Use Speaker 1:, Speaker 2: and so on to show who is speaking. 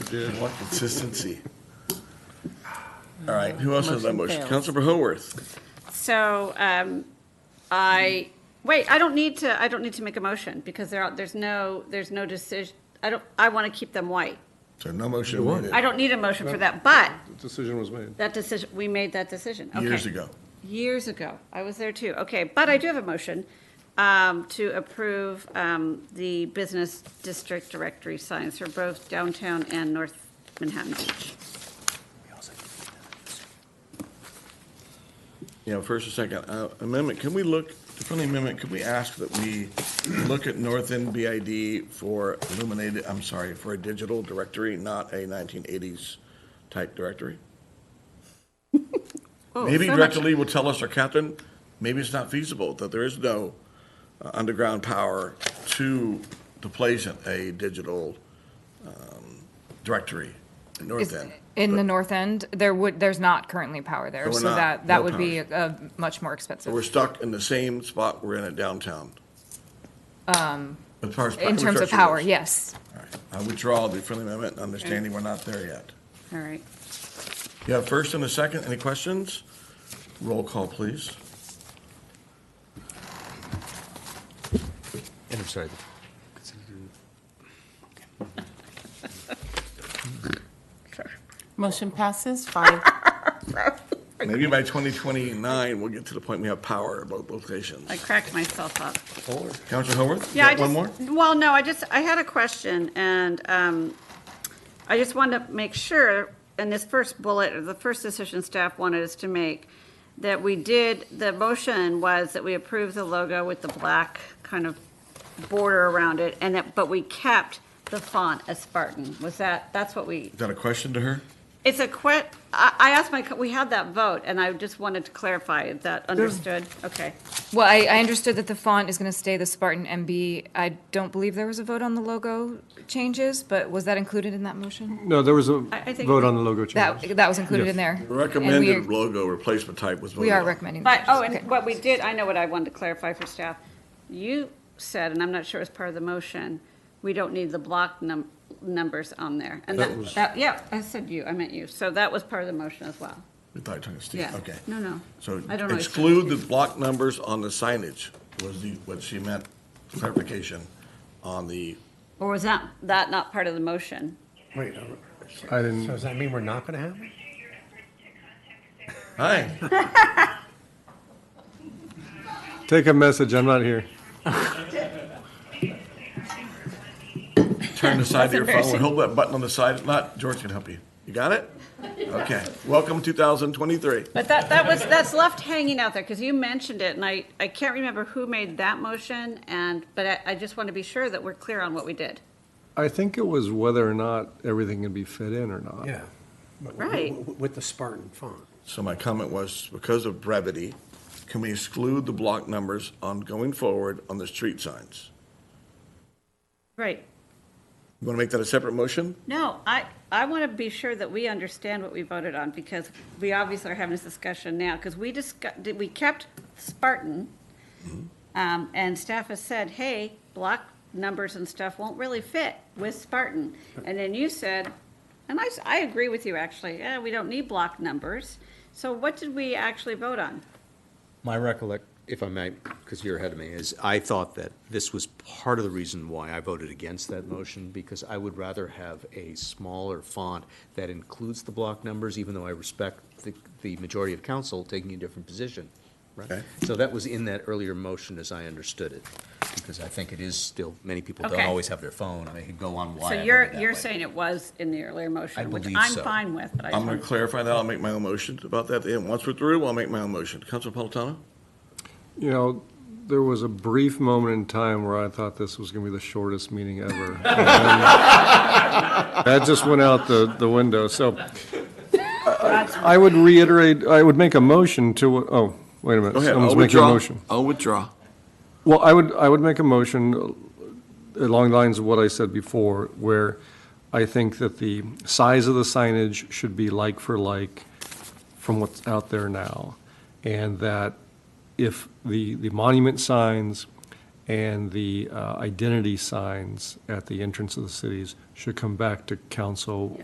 Speaker 1: Dude, what consistency. All right, who else has that
Speaker 2: Motion
Speaker 1: motion?
Speaker 2: fails.
Speaker 1: Councilmember Hoarth.
Speaker 3: So um, I, wait, I don't need to, I don't need to make a motion because there are, there's no, there's no decision. I don't, I want to keep them white.
Speaker 4: So no motion needed.
Speaker 3: I don't need a motion for that, but
Speaker 5: The Decision was made.
Speaker 3: that decision, we made that decision. Okay.
Speaker 4: Years ago.
Speaker 3: Years ago. I was there too. Okay, but I do have a motion um, to approve um, the business district directory signs for both downtown and North Manhattan Beach.
Speaker 1: You know, first or second uh, amendment, can we look, the friendly amendment, can we ask that we look at North End BID for illuminated, I'm sorry, for a digital directory, not a 1980s type directory?
Speaker 3: Oh,
Speaker 1: Maybe
Speaker 3: so
Speaker 1: Director
Speaker 3: much-
Speaker 1: Lee will tell us, or Captain, maybe it's not feasible, that there is no uh, underground power to, to place in a digital um, directory in North
Speaker 6: Is-
Speaker 1: End.
Speaker 6: In the north end, there would, there's not currently power there,
Speaker 1: So we're
Speaker 6: so
Speaker 1: not-
Speaker 6: that,
Speaker 1: no
Speaker 6: that would
Speaker 1: power.
Speaker 6: be uh, much more
Speaker 1: But We're
Speaker 6: expensive.
Speaker 1: stuck in the same spot we're in at downtown. As far as
Speaker 6: Um, In terms of
Speaker 1: infrastructure
Speaker 6: power,
Speaker 1: goes.
Speaker 6: yes.
Speaker 1: All right. I withdraw the friendly amendment, understanding we're not there yet.
Speaker 3: All right.
Speaker 1: You have first and a second, any questions? Roll call, please.
Speaker 7: And I'm sorry.
Speaker 2: Motion passes five.
Speaker 1: Maybe by 2029, we'll get to the point we have power at both locations.
Speaker 3: I cracked myself up.
Speaker 1: Counselor Howard?
Speaker 3: Yeah, I
Speaker 1: One
Speaker 3: just,
Speaker 1: more?
Speaker 3: well, no, I just, I had a question, and um, I just wanted to make sure, in this first bullet, or the first decision staff wanted us to make, that we did, the motion was that we approved the logo with the black kind of border around it, and that, but we kept the font as Spartan. Was that, that's what we,
Speaker 1: Is that a question to her?
Speaker 3: it's a que, I, I asked my, co- we had that vote, and I just wanted to clarify, is that understood? Okay.
Speaker 6: Well, I, I understood that the font is going to stay the Spartan MB. I don't believe there was a vote on the logo changes, but was that included in that motion?
Speaker 5: No, there was a
Speaker 3: I- I think-
Speaker 5: vote on the logo change.
Speaker 6: That, that was included
Speaker 5: Yes.
Speaker 6: in there.
Speaker 1: The
Speaker 6: And we are-
Speaker 1: Recommended logo replacement type was voted
Speaker 6: We are
Speaker 1: on.
Speaker 6: recommending.
Speaker 3: But, oh,
Speaker 6: okay.
Speaker 3: and what we did, I know what I wanted to clarify for staff. You said, and I'm not sure it was part of the motion, we don't need the block num, numbers on there. And
Speaker 5: That
Speaker 3: that,
Speaker 5: was-
Speaker 3: that, yeah, I said you, I meant you. So that was part of the motion as well.
Speaker 1: I thought you were talking to Steve,
Speaker 3: Yeah.
Speaker 1: okay.
Speaker 3: No, no.
Speaker 1: So
Speaker 3: I don't know.
Speaker 1: exclude the block numbers on the signage was the, what she meant, clarification on the,
Speaker 3: Or was that, that not part of the motion?
Speaker 7: Wait,
Speaker 5: I
Speaker 7: so
Speaker 5: didn't,
Speaker 7: does that mean we're not going to have? it?
Speaker 1: hi.
Speaker 5: take a message, I'm not here.
Speaker 1: Turn the side of your phone, hold that button on the side, not, George can help you. You got it? Okay, welcome 2023.
Speaker 3: But that, that was, that's left hanging out there because you mentioned it and I, I can't remember who made that motion and, but I, I just want to be sure that we're clear on what we did.
Speaker 5: I think it was whether or not everything can be fit in or not.
Speaker 7: Yeah. But w-
Speaker 3: Right.
Speaker 7: w- With the Spartan font.
Speaker 1: So my comment was, because of brevity, can we exclude the block numbers on going forward on the street signs?
Speaker 3: Right.
Speaker 1: You want to make that a separate motion?
Speaker 3: No, I, I want to be sure that we understand what we voted on, because we obviously are having this discussion now, because we discussed, we kept Spartan,
Speaker 8: Mm-hmm.
Speaker 3: um, and staff has said, hey, block numbers and stuff won't really fit with Spartan. And then you said, and I, s- I agree with you, actually, yeah, we don't need block numbers. So what did we actually vote on?
Speaker 8: My recollect, if I may, because you're ahead of me, is I thought that this was part of the reason why I voted against that motion, because I would rather have a smaller font that includes the block numbers, even though I respect the, the majority of council taking a different position.
Speaker 1: Okay.
Speaker 8: Right? So that was in that earlier motion, as I understood it, because I think it is still, many people don't
Speaker 3: Okay.
Speaker 8: always have their phone, and they can go on why I
Speaker 3: So
Speaker 8: voted
Speaker 3: you're,
Speaker 8: that
Speaker 3: you're
Speaker 8: way.
Speaker 3: saying it was in the earlier
Speaker 8: I
Speaker 3: motion, which
Speaker 8: believe
Speaker 3: I'm
Speaker 8: so.
Speaker 3: fine with, but I
Speaker 1: I'm
Speaker 3: just
Speaker 1: going
Speaker 3: want
Speaker 1: to clarify that, I'll make my own motion about that, and once we're through, I'll make my own motion. Councilor Napolitano?
Speaker 5: You know, there was a brief moment in time where I thought this was going to be the shortest meeting ever. And That just went out the, the window, so I would reiterate, I would make a motion to, oh, wait a minute.
Speaker 1: Go ahead.
Speaker 5: Someone's
Speaker 1: I'll
Speaker 5: making a
Speaker 1: withdraw.
Speaker 5: motion.
Speaker 1: I'll withdraw.
Speaker 5: Well, I would, I would make a motion along the lines of what I said before, where I think that the size of the signage should be like for like from what's out there now. And that if the, the monument signs and the uh, identity signs at the entrance of the cities should come back to council